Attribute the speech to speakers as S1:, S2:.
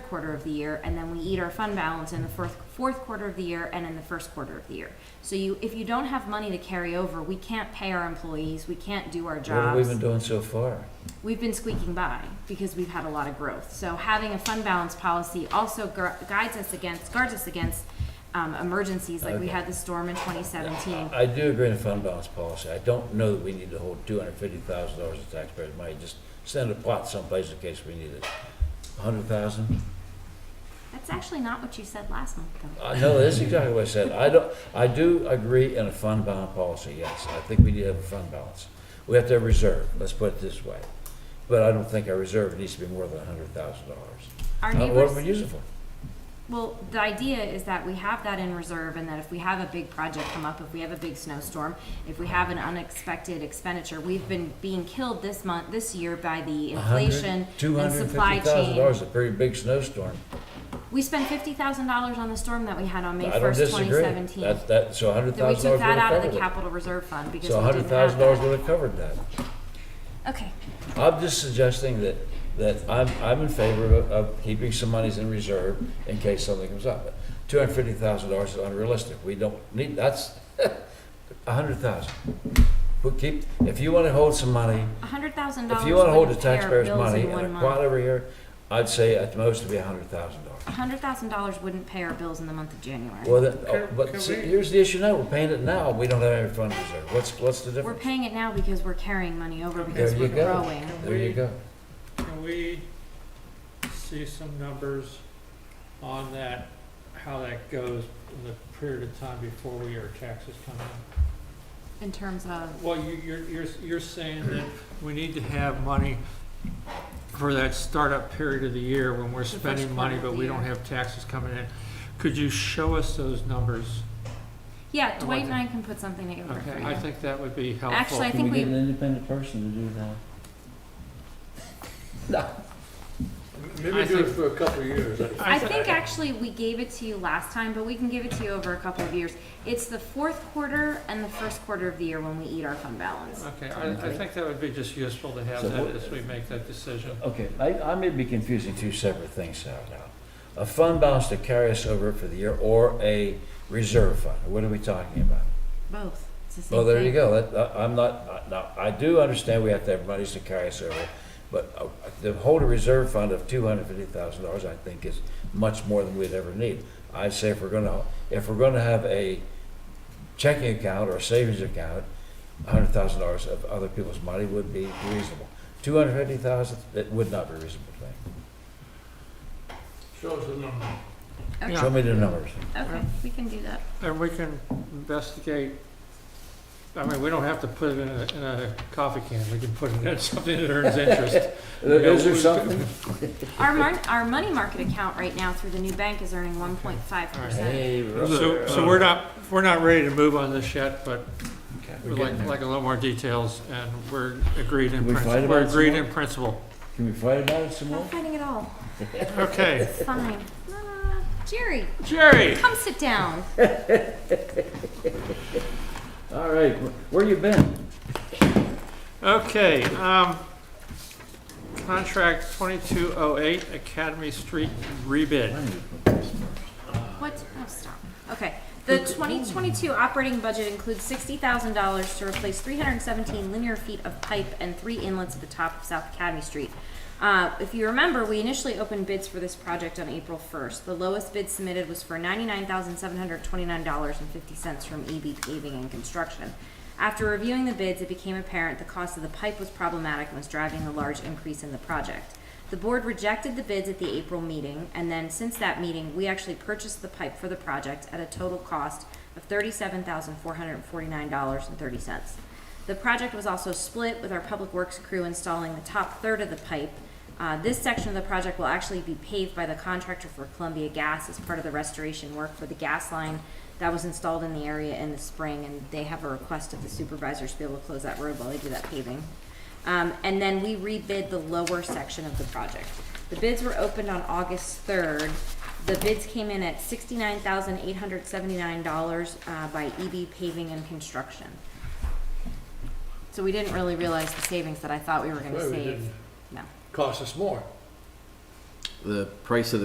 S1: quarter of the year, and then we eat our fund balance in the fourth, fourth quarter of the year and in the first quarter of the year. So you, if you don't have money to carry over, we can't pay our employees, we can't do our
S2: What have we
S1: jobs.
S2: been doing so far?
S1: We've been squeaking by because we've had a lot of growth. So having a fund balance policy also gu- guides us against, guards us against, um, emergencies like we
S2: Okay.
S1: had the storm in twenty seventeen.
S2: I do agree in the fund balance policy. I don't know that we need to hold two hundred fifty thousand dollars of taxpayers' money. Just send a pot someplace in case we need it. A hundred thousand?
S1: That's actually not what you said last month, though.
S2: I know, that's exactly what I said. I don't, I do agree in a fund balance policy, yes. I think we need to have a fund balance. We have to have reserve, let's put it this way. But I don't think our reserve needs to be more than a hundred thousand dollars.
S1: Our
S2: What do we
S1: neighbors,
S2: use it for?
S1: well, the idea is that we have that in reserve and that if we have a big project come up, if we have a big snowstorm, if we have an unexpected expenditure, we've been being killed this month, this year by the inflation
S2: Two
S1: and
S2: hundred
S1: supply
S2: fifty thousand
S1: chain.
S2: dollars is a pretty big snowstorm.
S1: We spent fifty thousand dollars on the storm that we had on May
S2: I don't
S1: first, twenty
S2: disagree.
S1: seventeen.
S2: That, that, so a hundred
S1: Then we
S2: thousand dollars
S1: took
S2: would have
S1: that out
S2: covered it.
S1: of the capital reserve fund because
S2: So a
S1: we
S2: hundred
S1: didn't have
S2: thousand dollars
S1: that.
S2: would have covered that.
S1: Okay,
S2: I'm just suggesting that, that I'm, I'm in favor of, of keeping some monies in reserve in case something comes up. Two hundred fifty thousand dollars is unrealistic. We don't need, that's a hundred thousand. But keep, if you wanna hold some money,
S1: a hundred thousand dollars.
S2: if you wanna hold the
S1: wouldn't pay our
S2: taxpayers'
S1: bills
S2: money
S1: in
S2: in
S1: one
S2: a
S1: month.
S2: quad every year, I'd say at most it'd be a hundred thousand dollars.
S1: A hundred thousand dollars wouldn't pay our bills in the month of January.
S2: Well, then, oh,
S3: Can-
S2: but
S3: can
S2: see,
S3: we-
S2: here's the issue now, we're paying it now, we don't have any fund reserve. What's, what's the
S1: We're
S2: difference?
S1: paying it now because we're carrying money over because
S2: There
S1: we're
S2: you go.
S1: growing.
S2: There you go.
S3: Can we see some numbers on that, how that goes in the period of time before we are taxes come in?
S1: In terms of,
S3: Well, you, you're, you're, you're saying that we need to have money for that startup period of the year when we're
S1: first
S3: spending
S1: quarter
S3: money,
S1: of
S3: but
S1: the
S3: we don't
S1: year.
S3: have taxes coming in. Could you show us those numbers?
S1: yeah,
S3: I
S1: Dwight
S3: want
S1: and
S3: to-
S1: I can put something together for
S3: Okay, I
S1: you.
S3: think that would be helpful.
S1: Actually, I
S4: Can
S1: think
S4: we get
S1: we,
S4: an independent person to do that?
S3: I
S5: Maybe do it
S3: think-
S5: for a couple of years.
S1: I
S3: thi-
S1: think actually we gave it to you last time, but we can give it to you over a couple of years. It's the fourth quarter and the first quarter of the year when we eat our fund balance.
S3: Okay, I, I think that would be just useful to have
S2: So
S3: that
S2: what-
S3: as we make that decision.
S2: Okay, I, I may be confusing two separate things, Sal, now. A fund balance to carry us over for the year or a reserve fund, what are we talking about?
S1: Both. It's the same
S2: Well, there you
S1: thing.
S2: go, that, I- I'm not, I- now, I do understand we have to have monies to carry us over, but uh, to hold a reserve fund of two hundred fifty thousand dollars, I think is much more than we'd ever need. I say if we're gonna, if we're gonna have a checking account or a savings account, hundred thousand dollars of other people's money would be reasonable. Two hundred fifty thousand, it would not be reasonable to me.
S5: Show us the number.
S1: Okay.
S2: Show me the numbers.
S1: Okay, we can do that.
S3: And we can investigate, I mean, we don't have to put it in a, in a coffee can, we can put it in something that earns interest.
S2: Uh, Is there something?
S1: Our mar, our money market account right now through the new bank is earning one point five percent.
S3: So, so we're not, we're not ready to move on this yet, but we'd like, like a little more details, and we're agreed in
S2: Can we fight
S3: principle, we're
S2: about some
S3: agreed
S2: more?
S3: in principle.
S2: Can we fight about it some
S1: Not
S2: more?
S1: fighting at all.
S3: Okay,
S1: It's fine. Ah, Jerry,
S3: Jerry,
S1: come sit down.
S2: All right, wh- where you been?
S3: okay, um, contract twenty-two oh eight, Academy Street rebid.
S1: What? Oh, stop. Okay. The 2022 operating budget includes $60,000 to replace 317 linear feet of pipe and three inlets at the top of South Academy Street. Uh, if you remember, we initially opened bids for this project on April 1st. The lowest bid submitted was for $99,729.50 from EB Paving and Construction. After reviewing the bids, it became apparent the cost of the pipe was problematic and was driving a large increase in the project. The board rejected the bids at the April meeting, and then since that meeting, we actually purchased the pipe for the project at a total cost of thirty-seven thousand four hundred and forty-nine dollars and thirty cents. The project was also split with our public works crew installing the top third of the pipe. Uh, this section of the project will actually be paved by the contractor for Columbia Gas as part of the restoration work for the gas line that was installed in the area in the spring, and they have a request of the supervisors to be able to close that road while they do that paving. Um, and then we rebid the lower section of the project. The bids were opened on August third. The bids came in at sixty-nine thousand eight hundred seventy-nine dollars, uh, by EB Paving and Construction. So we didn't really realize the savings that I thought we were gonna
S5: Well, we
S1: save.
S5: didn't.
S1: No.
S5: Cost us more.
S6: the price of the